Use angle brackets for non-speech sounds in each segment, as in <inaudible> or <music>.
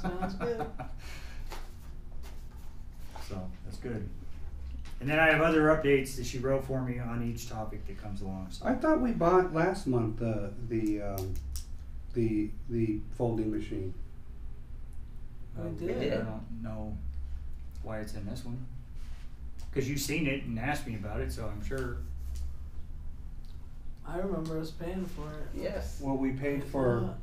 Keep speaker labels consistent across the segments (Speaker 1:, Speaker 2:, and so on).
Speaker 1: Sounds good.
Speaker 2: <laughs> So, that's good. And then I have other updates that she wrote for me on each topic that comes along, so.
Speaker 3: I thought we bought last month uh, the um, the the folding machine.
Speaker 2: Uh,
Speaker 1: We
Speaker 2: I
Speaker 1: did.
Speaker 2: don't know why it's in this one. Cause you've seen it and asked me about it, so I'm sure.
Speaker 1: I remember us paying for it. Uh,
Speaker 4: Yes.
Speaker 3: Well, we paid for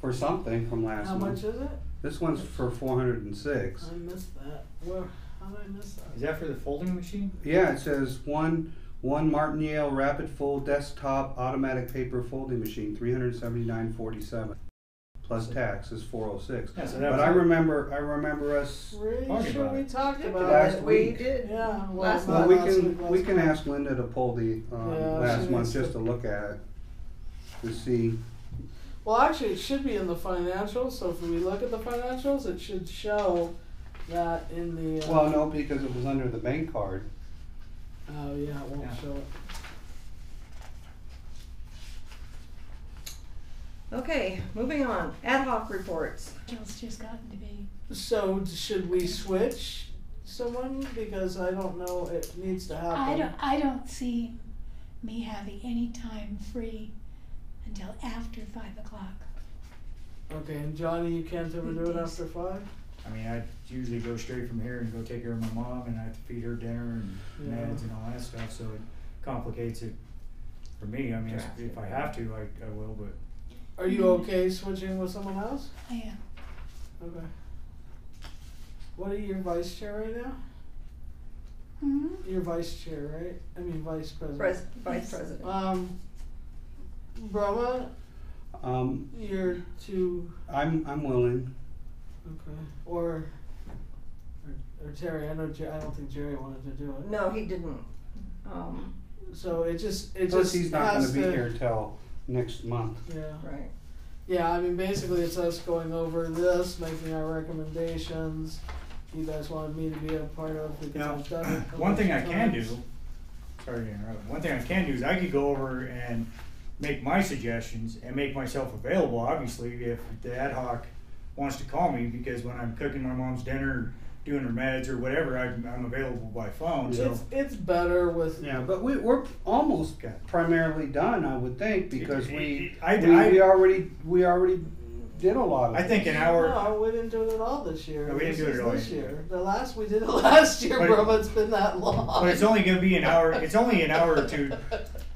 Speaker 3: for something from last
Speaker 1: How
Speaker 3: month.
Speaker 1: much is it?
Speaker 3: This one's for four hundred and six.
Speaker 1: I missed that. Where, how did I miss that?
Speaker 2: Is that for the folding machine?
Speaker 3: Yeah, it says one one Martingale Rapid Fold Desktop Automatic Paper Folding Machine, three hundred seventy nine forty seven, plus tax is four oh six.
Speaker 2: Yeah, so that
Speaker 3: But
Speaker 2: was.
Speaker 3: I remember I remember us.
Speaker 2: Talking
Speaker 1: Pretty sure
Speaker 2: about
Speaker 1: we
Speaker 2: it.
Speaker 1: talked about
Speaker 3: Last
Speaker 1: it.
Speaker 3: week.
Speaker 4: We did.
Speaker 1: Yeah, well,
Speaker 4: Last
Speaker 1: not
Speaker 3: Well, we
Speaker 1: last week,
Speaker 3: can
Speaker 1: last
Speaker 3: we can
Speaker 1: month.
Speaker 3: ask Linda to pull the um,
Speaker 1: Yeah,
Speaker 3: last
Speaker 1: she
Speaker 3: month
Speaker 1: needs
Speaker 3: just to
Speaker 1: to-
Speaker 3: look at it to see.
Speaker 1: Well, actually, it should be in the financials. So if we look at the financials, it should show that in the. Uh,
Speaker 3: Well, no, because it was under the bank card.
Speaker 1: Oh yeah, it won't
Speaker 2: Yeah.
Speaker 1: show it.
Speaker 4: Okay, moving on. Ad hoc reports.
Speaker 5: Jill's just gotten to be.
Speaker 1: So d- should we switch someone because I don't know it needs to happen.
Speaker 5: I don't, I don't see me having any time free until after five o'clock.
Speaker 1: Okay, and Johnny, you can't ever do it after five.
Speaker 2: I mean, I usually go straight from here and go take care of my mom and I have to feed her dinner and
Speaker 1: Yeah.
Speaker 2: meds and all that stuff, so it complicates it for me. I mean, it's- if I have to, I, I will, but
Speaker 1: Are you
Speaker 5: Mhm.
Speaker 1: okay switching with someone else?
Speaker 5: I am,
Speaker 1: Okay. What are your vice chair right now?
Speaker 5: hmm
Speaker 1: Your vice chair, right? I mean vice president.
Speaker 4: Pres- Vice
Speaker 5: Yes.
Speaker 4: President.
Speaker 1: Um, Brahma,
Speaker 3: Um,
Speaker 1: you're too
Speaker 3: I'm I'm willing.
Speaker 1: okay, or or, or Terry. I know. Jer- I don't think Jerry wanted to do
Speaker 4: No, he didn't. Um,
Speaker 1: it. So it just it
Speaker 3: Plus,
Speaker 1: just
Speaker 3: he's not going
Speaker 1: has
Speaker 3: to be
Speaker 1: to-
Speaker 3: here till next month.
Speaker 1: Yeah.
Speaker 4: right.
Speaker 1: Yeah, I mean, basically, it's us going over this, making our recommendations. You guys wanted me to be a part of because
Speaker 2: Now,
Speaker 1: I've done it. a
Speaker 2: one thing I
Speaker 1: bunch of
Speaker 2: can
Speaker 1: times.
Speaker 2: do, sorry to interrupt, one thing I can do is I could go over and make my suggestions and make myself available, obviously, if the ad hoc wants to call me, because when I'm cooking my mom's dinner, doing her meds or whatever, I'm, I'm available by phone, so.
Speaker 1: It's it's better with
Speaker 3: Yeah, but we, we're almost
Speaker 2: Okay.
Speaker 3: primarily done, I would think, because we
Speaker 2: I-
Speaker 3: we,
Speaker 2: I-
Speaker 3: we already we already did a lot of.
Speaker 2: I think
Speaker 3: it.
Speaker 2: an hour.
Speaker 1: No, we didn't do it at all this year.
Speaker 2: No, we didn't
Speaker 1: This
Speaker 2: do it
Speaker 1: is
Speaker 2: at all
Speaker 1: This
Speaker 2: this year.
Speaker 1: year, the last we did it <laughs> last year,
Speaker 2: But-
Speaker 1: bro. It's been that long.
Speaker 2: But it's only gonna be an hour, it's only an hour or two,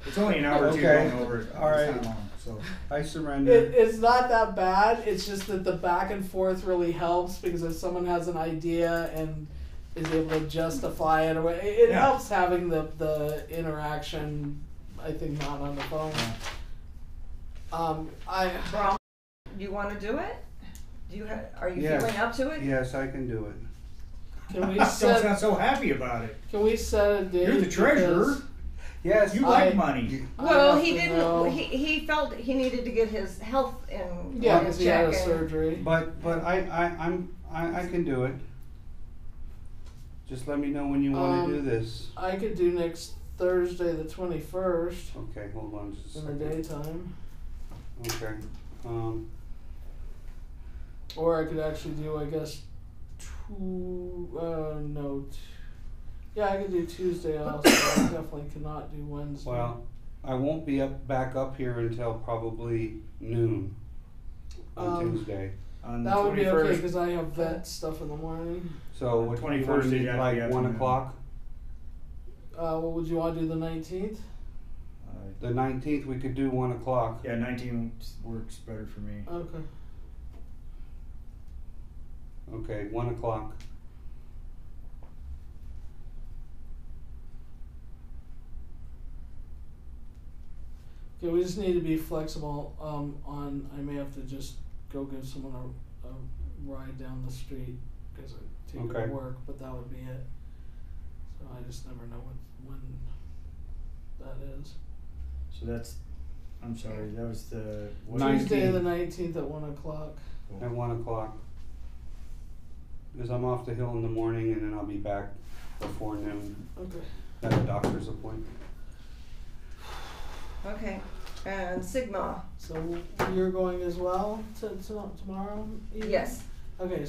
Speaker 2: it's only an hour or two
Speaker 3: Okay.
Speaker 2: going over. it.
Speaker 3: All
Speaker 2: It's
Speaker 3: right.
Speaker 2: not long, So,
Speaker 1: <laughs>
Speaker 3: I
Speaker 1: It,
Speaker 3: surrender.
Speaker 1: it's not that bad. It's just that the back and forth really helps because if someone has an idea and is able to justify it, or it, it
Speaker 2: Yeah.
Speaker 1: helps having the the interaction. I think not on the phone.
Speaker 2: Yeah.
Speaker 1: Um, I
Speaker 4: Brom, you want to do it? Do you ha- are you
Speaker 3: Yes.
Speaker 4: feeling up to it?
Speaker 3: Yes, I can do it.
Speaker 1: can
Speaker 2: <laughs>
Speaker 1: we
Speaker 2: don't
Speaker 1: set
Speaker 2: sound so happy about it.
Speaker 1: can we set a date?
Speaker 2: You're the treasurer,
Speaker 1: because
Speaker 3: Yes,
Speaker 2: you
Speaker 1: I-
Speaker 2: like money.
Speaker 1: I
Speaker 4: Well,
Speaker 1: have
Speaker 4: he
Speaker 1: to
Speaker 4: didn't.
Speaker 1: know-
Speaker 4: He, he felt he needed to get his health in
Speaker 1: yeah,
Speaker 4: in
Speaker 1: because he had a
Speaker 4: check and-
Speaker 1: surgery.
Speaker 3: but but I I I'm I, I can do it. Just let me know when you want
Speaker 1: Um,
Speaker 3: to do this.
Speaker 1: I could do next Thursday, the twenty first,
Speaker 3: Okay, hold on just a
Speaker 1: in the
Speaker 3: second.
Speaker 1: daytime,
Speaker 3: Okay. Um,
Speaker 1: or I could actually do, I guess, two. Uh, no. T- yeah, I could do Tuesday also. I definitely cannot do Wednesday.
Speaker 3: well, I won't be up back up here until probably noon on
Speaker 1: Um,
Speaker 3: Tuesday.
Speaker 2: On the
Speaker 1: that would be okay
Speaker 2: 21st.
Speaker 1: because I have vet stuff in the morning.
Speaker 3: So what do you want
Speaker 2: 21st
Speaker 3: to
Speaker 2: is after
Speaker 3: meet,
Speaker 2: the
Speaker 3: like one
Speaker 2: afternoon.
Speaker 3: o'clock?
Speaker 1: Uh, what would you want to do the nineteenth?
Speaker 2: Uh,
Speaker 3: The nineteenth we could do one o'clock.
Speaker 2: Yeah, 19 works better for me.
Speaker 1: Okay.
Speaker 3: Okay, one o'clock.
Speaker 1: Okay, we just need to be flexible. Um, on I may have to just go give someone a, a ride down the street because I take her
Speaker 3: Okay.
Speaker 1: to work, but that would be it. So I just never know what when that is.
Speaker 2: So that's, I'm sorry, that was the. what-
Speaker 3: Nine-
Speaker 1: Tuesday the
Speaker 3: 19th.
Speaker 1: nineteenth at one o'clock.
Speaker 3: At one o'clock. Because I'm off the hill in the morning and then I'll be back before noon
Speaker 1: Okay.
Speaker 3: at a doctor's appointment.
Speaker 4: Okay, and Sigma.
Speaker 1: So you're going as well to, to tomorrow? evening?
Speaker 4: Yes.
Speaker 1: Okay,